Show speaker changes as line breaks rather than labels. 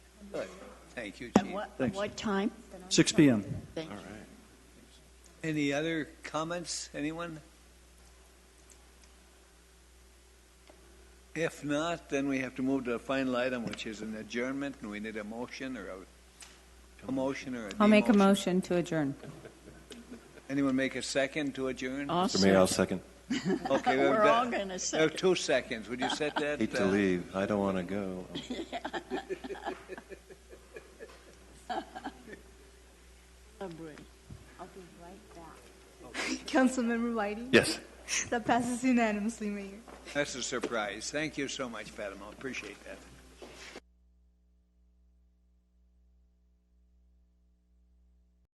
Good. Thank you,
At
Chief.
what, at
Thanks.
what time?
6 PM.
Thank you.
Any other comments, anyone? If not, then we have to move to the final item, which is an adjournment, and we need a motion or a, a motion or a
I'll make a
demotion.
motion to adjourn.
Anyone make a second to adjourn?
Uh,
Mr. Mayor, I'll second.
Okay, we've
We're all
got,
going to
we have
second.
two seconds, would you set that?
Hate to
uh,
leave. I don't want to go.
I'll be right back.
Councilmember Whiting?
Yes.
That passes unanimously, Mayor.
That's a surprise, thank you so much, Fatima, appreciate that.